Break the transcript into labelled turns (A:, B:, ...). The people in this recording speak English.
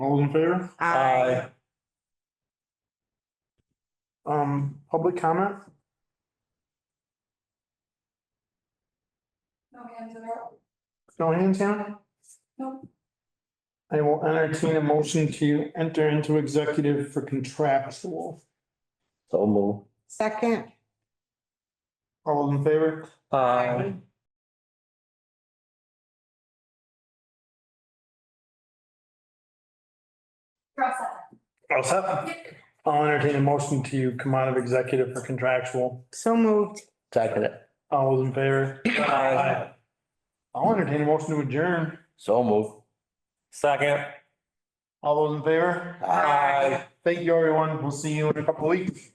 A: All those in favor? Um, public comment?
B: No hands are up.
A: No hands down?
B: Nope.
A: I will entertain a motion to enter into executive for contractual.
C: So move.
D: Second.
A: All those in favor?
C: Aye.
B: Cross out.
A: I'll se- I'll entertain a motion to come out of executive for contractual.
D: So moved.
C: Second it.
A: All those in favor?
C: Aye.
A: I'll entertain a motion to adjourn.
C: So move. Second.
A: All those in favor? Thank you, everyone. We'll see you in a couple of weeks.